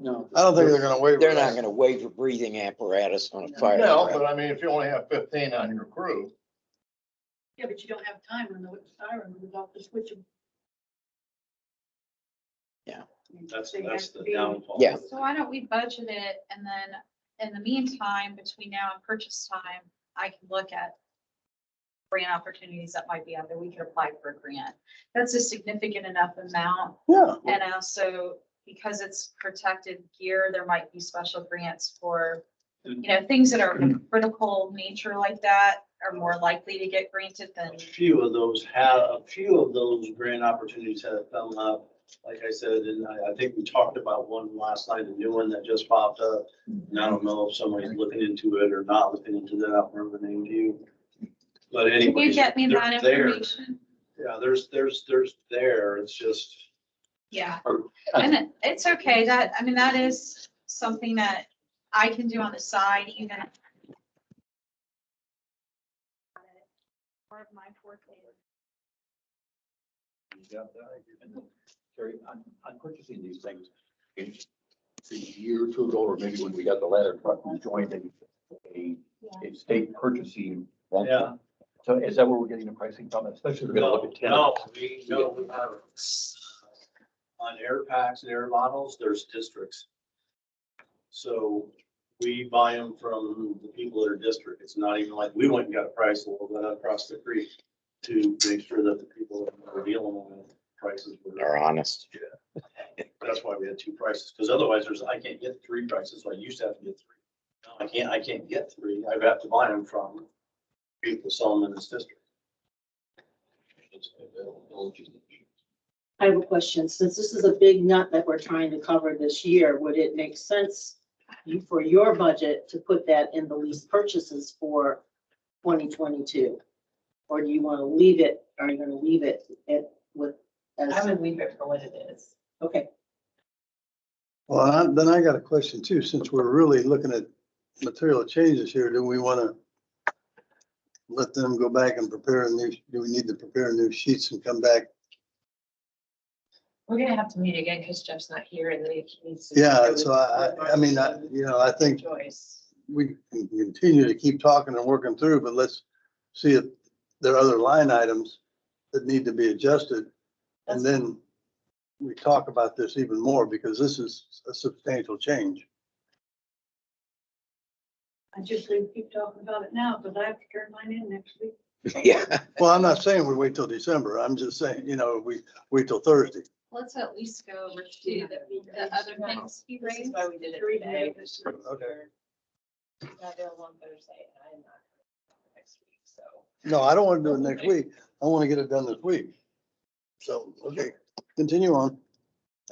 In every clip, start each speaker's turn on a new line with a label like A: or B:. A: No.
B: I don't think they're gonna waive.
C: They're not gonna waive a breathing apparatus on a fire.
B: No,
C: apparatus.
B: but I mean, if you only have fifteen on your crew,
D: Yeah, but you don't have time when the siren goes off to switch them.
C: Yeah.
A: That's,
D: They
A: that's
D: have to
A: the
D: be-
A: downfall.
C: Yeah.
E: So why don't we budget it and then in the meantime, between now and purchase time, I can look at grant opportunities that might be out there. We could apply for a grant. That's a significant enough amount.
B: yeah,
E: And also because it's protected gear, there might be special grants for, you know, things that are of critical nature like that are more likely to get granted than
A: A few of those have, a few of those grant opportunities have come up. Like I said, and I, I think we talked about one last night, a new one that just popped up. And I don't know if somebody's looking into it or not looking into that. I don't remember the name to you. But
E: Can
A: anyway.
E: you get me that information?
A: Yeah, there's, there's, there's there. It's just.
E: Yeah,
A: Or-
E: and it- it's okay, that, I mean, that is something that I can do on the side, even. Part of my forte.
F: Terry, on, on purchasing these things, in a year or two ago, or maybe when we got the ladder truck, we joined a, a, a state purchasing. one.
A: Yeah.
F: So is that where we're getting the pricing from, especially if we're gonna look at
A: No,
F: ten?
A: we, no, we have. uh, On air packs and air models, there's districts. So we buy them from the people that are district. It's not even like, we went and got a price a little bit across the creek to make sure that the people that we're dealing with prices
C: They're
A: were,
C: honest.
A: that's why we had two prices, because otherwise there's, I can't get three prices, so I used to have to get three. Now I can't, I can't get three. I have to buy them from people selling in this district.
G: I have a question. Since this is a big nut that we're trying to cover this year, would it make sense you- for your budget to put that in the lease purchases for twenty twenty-two? Or do you want to leave it, are you going to leave it at with? I would leave it for what it is. Okay,
B: well, I- then I got a question too, since we're really looking at material changes here, do we wanna let them go back and prepare a new, do we need to prepare new sheets and come back?
H: We're gonna have to meet again because Jeff's not here and then he needs to.
B: Yeah, so I, I, I mean, I, you know, I think
H: Joyce.
B: we can continue to keep talking and working through, but let's see if there are other line items that need to be adjusted. And then we talk about this even more because this is a substantial change.
D: I just say keep talking about it now, because I have to turn mine in next week.
C: Yeah.
B: Well, I'm not saying we wait till December. I'm just saying, you know, we wait till Thursday.
E: Let's at least go over to the, the other things he
H: This is
E: raised.
H: why we did it
D: Three
H: today.
D: days.
H: She's not
B: Okay.
H: available on Thursday and I'm not available next week, so.
B: No, I don't want to do it next week. I want to get it done this week. So, okay, continue on.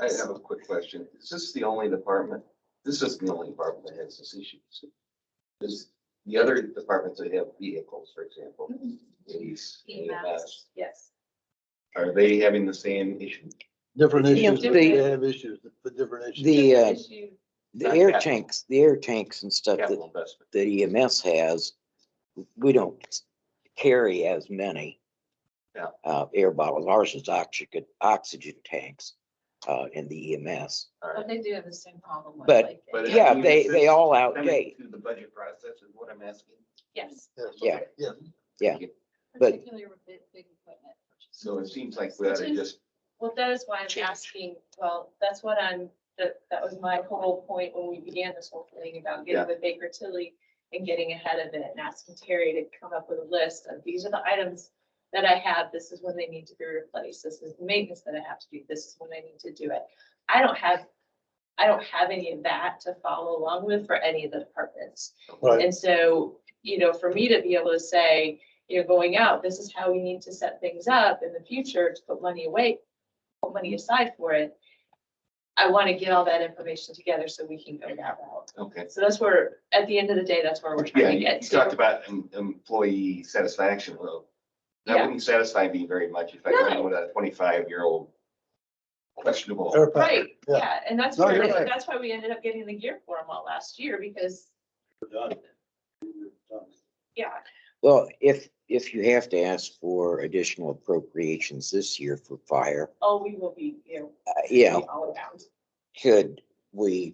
I: I have a quick question. Is this the only department? This isn't the only department that has this issue. is it? Is the other departments that have vehicles, for example, police, EMS,
H: Yes.
I: are they having the same issue?
B: Different
C: Yeah,
B: issues,
C: the-
B: but they have issues, but different issues.
C: The, uh,
H: Issue-
C: the air tanks, the air tanks and stuff that,
I: Capital investment.
C: that EMS has, we don't carry as many.
I: Yeah.
C: Uh, air bottles. Ours is oxygen, oxygen tanks, uh, in the EMS.
I: All
H: But
I: right.
H: they do have the same problem with
C: But-
H: like.
I: But it
C: Yeah,
I: even
C: they, they
I: fits
C: all
I: coming
C: outdate.
I: Through the budget process is what I'm asking.
H: Yes.
C: Yeah.
I: Okay.
B: Yeah.
C: Yeah.
I: Okay.
C: But-
E: Particularly with big, big equipment. purchases.
I: So it seems like we ought to just,
H: Well, that is why I'm
I: Change.
H: asking, well, that's what I'm, that, that was my whole point when we began this whole thing about
I: Yeah.
H: getting with Baker Tilly and getting ahead of it and asking Terry to come up with a list of these are the items that I have, this is when they need to be replaced, this is the maintenance that I have to do, this is when I need to do it. I don't have, I don't have any of that to follow along with for any of the departments.
B: Right.
H: And so, you know, for me to be able to say, you know, going out, this is how we need to set things up in the future to put money away, put money aside for it. I want to get all that information together so we can go that route.
I: okay.
H: So that's where, at the end of the day, that's where we're
I: Yeah,
H: trying to
I: you
H: get
I: you talked
H: to.
I: about em- employee satisfaction. Well, that
H: Yeah.
I: wouldn't satisfy me very much if I
H: No.
I: ran with a twenty-five-year-old questionable.
B: Air pack.
H: Right,
B: Yeah.
H: yeah, and that's
B: No,
H: where,
B: you're right.
H: that's why we ended up getting the gear for them all last year because,
A: Done. Done.
H: yeah,
C: Well, if, if you have to ask for additional appropriations this year for fire,
H: oh, we will be, you know,
C: uh, yeah,
H: all around.
C: could we